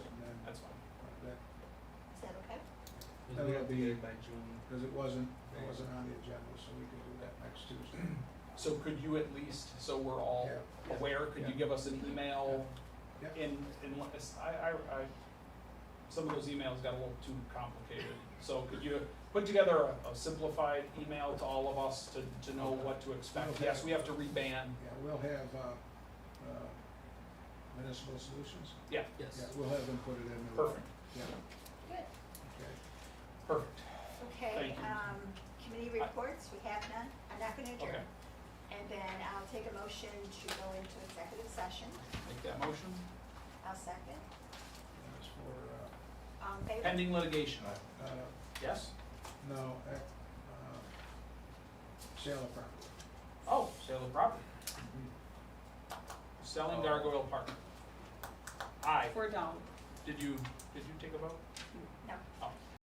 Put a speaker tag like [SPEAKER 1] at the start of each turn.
[SPEAKER 1] We have
[SPEAKER 2] that'll
[SPEAKER 1] to
[SPEAKER 2] be,
[SPEAKER 1] get it by June.
[SPEAKER 2] because it wasn't, it
[SPEAKER 1] Right.
[SPEAKER 2] wasn't on the agenda, so we can do that next Tuesday.
[SPEAKER 3] So could you at least, so we're all
[SPEAKER 2] Yeah.
[SPEAKER 3] aware, could you
[SPEAKER 2] Yeah.
[SPEAKER 3] give us an email?
[SPEAKER 2] Yeah. Yeah.
[SPEAKER 3] In, in, let us- I, I, I, some of those emails got a little too complicated. So could you put together a, a simplified email to all of us to, to know what to expect?
[SPEAKER 2] Okay.
[SPEAKER 3] Yes, we have to reban,
[SPEAKER 2] Yeah, we'll have, uh, uh, municipal solutions,
[SPEAKER 3] yeah,
[SPEAKER 2] yeah,
[SPEAKER 4] Yes.
[SPEAKER 2] we'll have them put it in. the-
[SPEAKER 3] perfect,
[SPEAKER 2] Yeah,
[SPEAKER 5] Good,
[SPEAKER 2] okay.
[SPEAKER 3] perfect,
[SPEAKER 5] okay,
[SPEAKER 3] Thank you.
[SPEAKER 5] um, committee
[SPEAKER 3] I-
[SPEAKER 5] reports, we have none, I'm not gonna
[SPEAKER 3] okay.
[SPEAKER 5] adjourn. And then I'll take a motion to go into executive session,
[SPEAKER 3] Make that motion,
[SPEAKER 5] I'll second,
[SPEAKER 2] That's for,
[SPEAKER 5] um, favor?
[SPEAKER 3] pending litigation,
[SPEAKER 2] uh, uh,
[SPEAKER 3] yes?
[SPEAKER 2] no, uh, uh, sale of property.
[SPEAKER 3] Oh, sale of property. Selling Gargoyle Park. Aye,
[SPEAKER 6] Four down.
[SPEAKER 3] did you, did you take a vote? Oh.